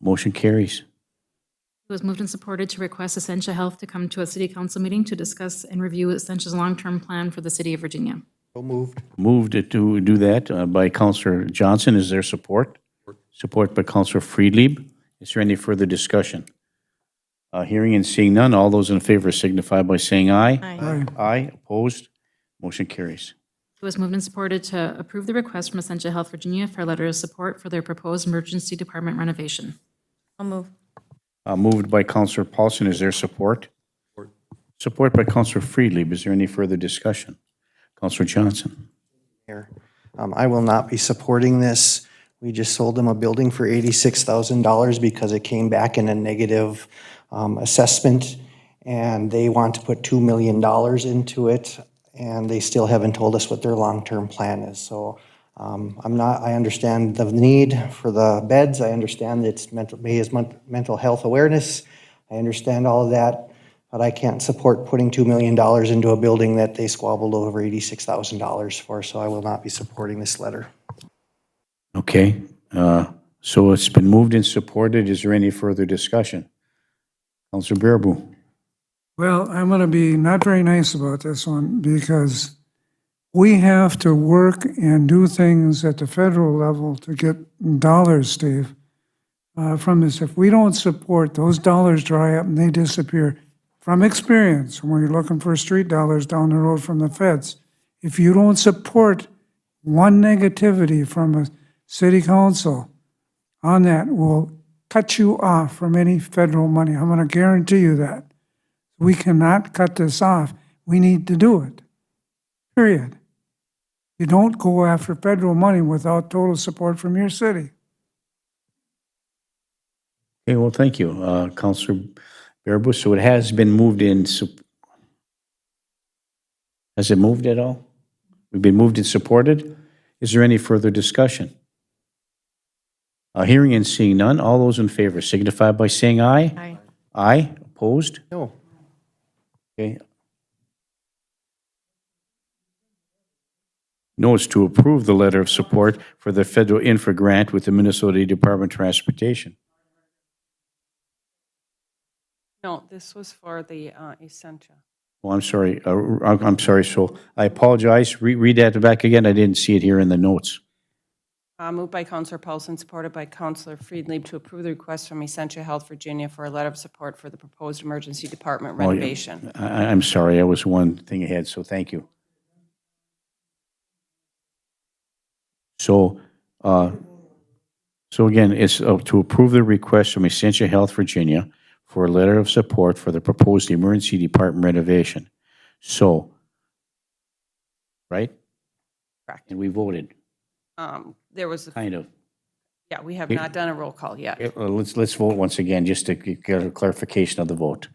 Motion carries. It was moved and supported to request Essentia Health to come to a city council meeting to discuss and review Essentia's long-term plan for the city of Virginia. So moved. Moved to do that uh, by Counselor Johnson. Is there support? Support by Counselor Friedlieb. Is there any further discussion? Uh, Hearing and seeing none, all those in favor signify by saying aye. Aye. Aye, opposed, motion carries. It was moved and supported to approve the request from Essentia Health Virginia for a letter of support for their proposed emergency department renovation. I'll move. Uh, Moved by Counselor Paulson. Is there support? Support by Counselor Friedlieb. Is there any further discussion? Counselor Johnson. Mayor, um, I will not be supporting this. We just sold them a building for eighty-six thousand dollars because it came back in a negative um, assessment, and they want to put two million dollars into it, and they still haven't told us what their long-term plan is. So um, I'm not, I understand the need for the beds, I understand it's mental, May is mon- mental health awareness, I understand all of that, but I can't support putting $2 million into a building that they squabbled over $86,000 for, so I will not be supporting this letter. Okay, uh, so it's been moved and supported. Is there any further discussion? Counselor Bearable. Well, I'm going to be not very nice about this one because we have to work and do things at the federal level to get dollars, Steve, uh, from this. If we don't support, those dollars dry up and they disappear. From experience, when you're looking for street dollars down the road from the feds, if you don't support one negativity from a city council on that, will cut you off from any federal money. I'm going to guarantee you that. We cannot cut this off. We need to do it. Period. You don't go after federal money without total support from your city. Okay, well, thank you, uh, Counselor Bearable. So it has been moved in, sup- has it moved at all? We've been moved and supported. Is there any further discussion? Uh, Hearing and seeing none, all those in favor signify by saying aye. Aye. Aye, opposed? No. Okay. Notes to approve the letter of support for the federal infra grant with the Minnesota Department of Transportation. No, this was for the uh, Essentia. Well, I'm sorry, uh, I'm I'm sorry, so I apologize. Re- Read that back again. I didn't see it here in the notes. Uh, Moved by Counselor Paulson, supported by Counselor Friedlieb to approve the request from Essentia Health Virginia for a letter of support for the proposed emergency department renovation. Oh, I- I- I'm sorry, I was one thing ahead, so thank you. So, uh, so again, it's uh, to approve the request from Essentia Health Virginia for a letter of support for the proposed emergency department renovation. So, right? Correct. And we voted, Um, There was, a- kind of. yeah, we have not done a roll call yet. Yeah, well, uh, Let's, let's vote once again, just to get a clarification of the vote.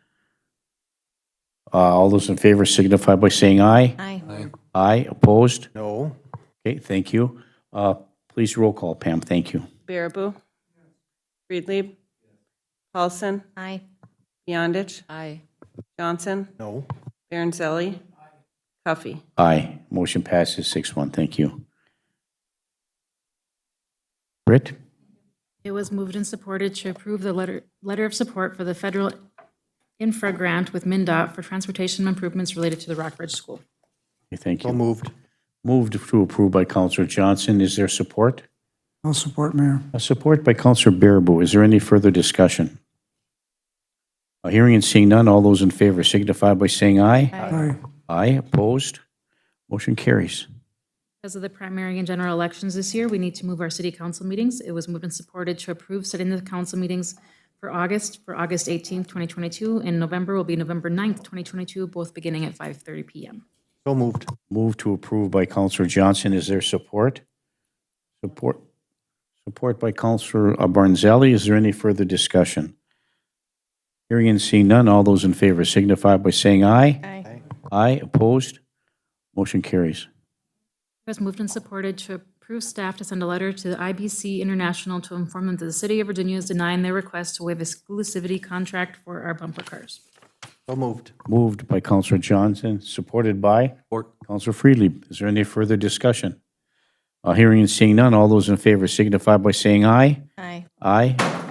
Uh, All those in favor signify by saying aye. Aye. Aye, opposed? No. Okay, thank you. Uh, Please roll call, Pam, thank you. Baraboo? Friedlieb? Paulson? Aye. Beyondich? Aye. Johnson? No. Baranzelli? Cuffey? Aye, motion passes 6-1, thank you. Britt? It was moved and supported to approve the letter, letter of support for the federal infra grant with MinDOT for transportation improvements related to the Rock Ridge School. Okay, Thank So you. moved. Moved to approve by Counselor Johnson, is there support? I'll support Mayor. Uh, Support by Counselor Bearable, is there any further discussion? Uh, Hearing and seeing none, all those in favor signify by saying aye. Aye. Aye, opposed? Motion carries. Because of the primary and general elections this year, we need to move our city council meetings. It was moved and supported to approve setting the council meetings for August, for August 18th, 2022, and November will be November 9th, 2022, both beginning at 5:30 PM. So moved. Move to approve by Counselor Johnson. Is there support? Support, support by Counselor uh, Barnzelli. Is there any further discussion? Hearing and seeing none, all those in favor signify by saying aye. Aye. Aye, opposed? Motion carries. It was moved and supported to approve staff to send a letter to the IBC International to inform them that the city of Virginia is denying their request to waive exclusivity contract for our bumper cars. So moved. Moved by Counselor Johnson, supported by? Support. Counselor Freely. Is there any further discussion? Uh, Hearing and seeing none, all those in favor signify by saying aye. Aye. Aye,